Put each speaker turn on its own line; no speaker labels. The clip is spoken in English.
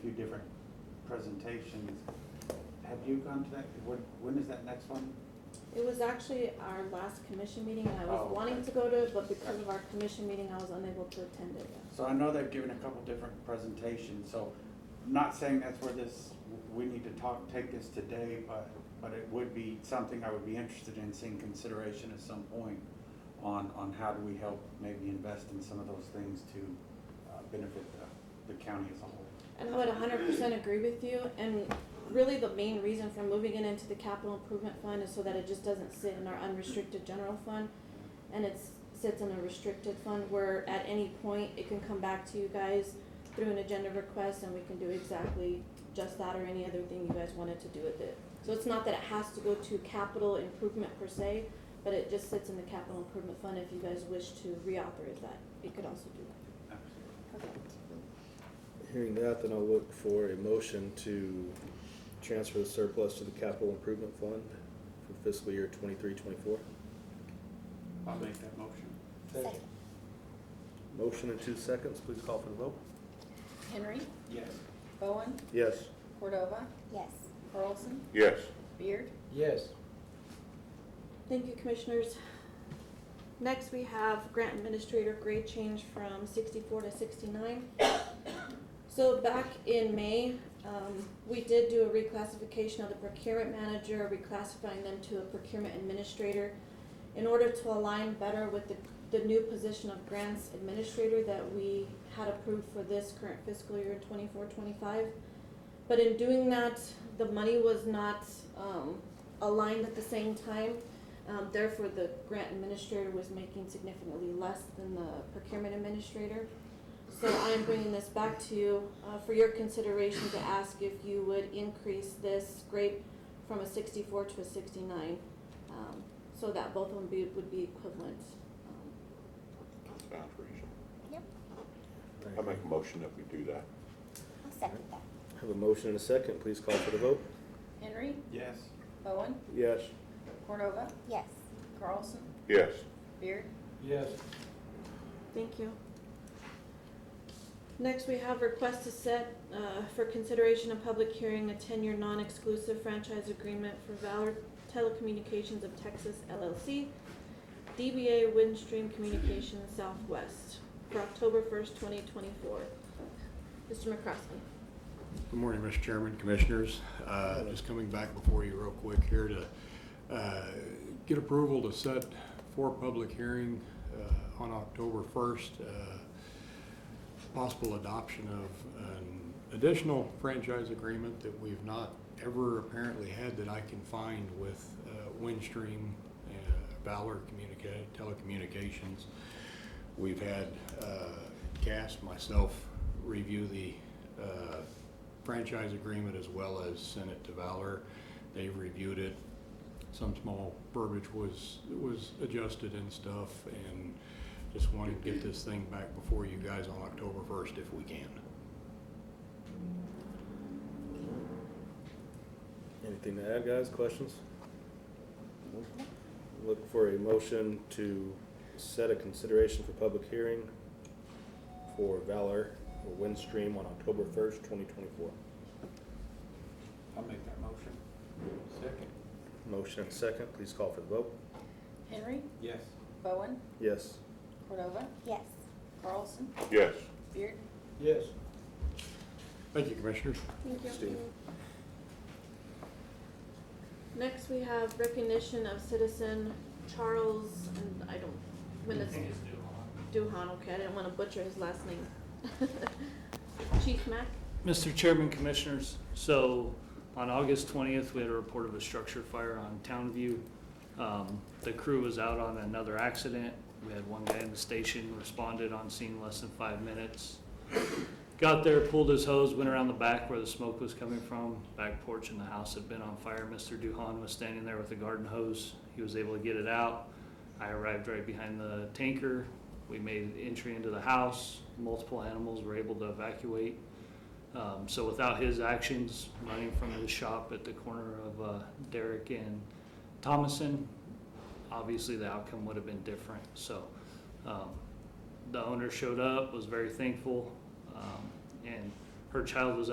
few different presentations. Have you gone to that, when, when is that next one?
It was actually our last commission meeting and I was
Oh,
wanting
okay.
to go to it, but because of our commission meeting, I was unable to attend it.
So I know they've given a couple different presentations, so I'm not saying that's where this, we need to talk, take this today, but, but it would be something I would be interested in seeing consideration at some point on, on how do we help maybe invest in some of those things to uh, benefit the, the county as a whole.
And I would hundred percent agree with you, and really the main reason for moving it into the capital improvement fund is so that it just doesn't sit in our unrestricted general fund. And it's, sits in a restricted fund where at any point, it can come back to you guys through an agenda request and we can do exactly just that or any other thing you guys wanted to do with it. So it's not that it has to go to capital improvement per se, but it just sits in the capital improvement fund if you guys wish to reauthorize that, you could also do that.
Hearing that, then I'll look for a motion to transfer the surplus to the capital improvement fund for fiscal year twenty-three, twenty-four.
I'll make that motion.
Second.
Motion in two seconds, please call for the vote.
Henry,
Yes.
Bowen,
Yes.
Cordova,
Yes.
Carlson,
Yes.
Beard,
Yes.
Thank you, commissioners. Next, we have grant administrator grade change from sixty-four to sixty-nine. So back in May, um, we did do a reclassification of the procurement manager, reclassifying them to a procurement administrator in order to align better with the, the new position of grants administrator that we had approved for this current fiscal year 24-25. But in doing that, the money was not, um, aligned at the same time. Um, therefore, the grant administrator was making significantly less than the procurement administrator. So I am bringing this back to you, uh, for your consideration to ask if you would increase this grade from a sixty-four to a sixty-nine. Um, so that both of them be, would be equivalent. Um,
Sounds reasonable.
Yep.
I make a motion that we do that.
I'll second that.
Have a motion and a second, please call for the vote.
Henry,
Yes.
Bowen,
Yes.
Cordova,
Yes.
Carlson,
Yes.
Beard,
Yes.
Thank you. Next, we have request to set, uh, for consideration of public hearing, a ten-year non-exclusive franchise agreement for Valor Telecommunications of Texas LLC, DBA Windstream Communications Southwest, for October first, twenty twenty-four. Mr. McCroskey.
Good morning, Mr. Chairman, Commissioners. Uh, Just coming back before you real quick here to uh, get approval to set for public hearing uh, on October 1st, uh, possible adoption of an additional franchise agreement that we've not ever apparently had that I can find with uh, Windstream, uh, Valor Communica- Telecommunications. We've had uh, Cass, myself, review the uh, franchise agreement as well as send it to Valor. They've reviewed it. Some small verbiage was, was adjusted and stuff, and just wanted to get this thing back before you guys on October 1st if we can.
Anything to add, guys, questions? No? Look for a motion to set a consideration for public hearing for Valor or Windstream on October first, twenty twenty-four.
I'll make that motion.
Second.
Motion and second, please call for the vote.
Henry,
Yes.
Bowen,
Yes.
Cordova,
Yes.
Carlson,
Yes.
Beard,
Yes.
Thank you, Commissioners.
Thank you.
Steve.
Next, we have recognition of citizen Charles, and I don't, when it's. Duhan, okay, I didn't wanna butcher his last name. Chief Mack?
Mr. Chairman, Commissioners, so on August twentieth, we had a report of a structure fire on Townview. Um, the crew was out on another accident. We had one guy in the station, responded on scene less than five minutes. Got there, pulled his hose, went around the back where the smoke was coming from, back porch in the house had been on fire. Mr. Duhan was standing there with a garden hose. He was able to get it out. I arrived right behind the tanker. We made entry into the house. Multiple animals were able to evacuate. Um, so without his actions, running from his shop at the corner of uh, Derrick and Thomason, obviously the outcome would have been different. So um, the owner showed up, was very thankful, um, and her child was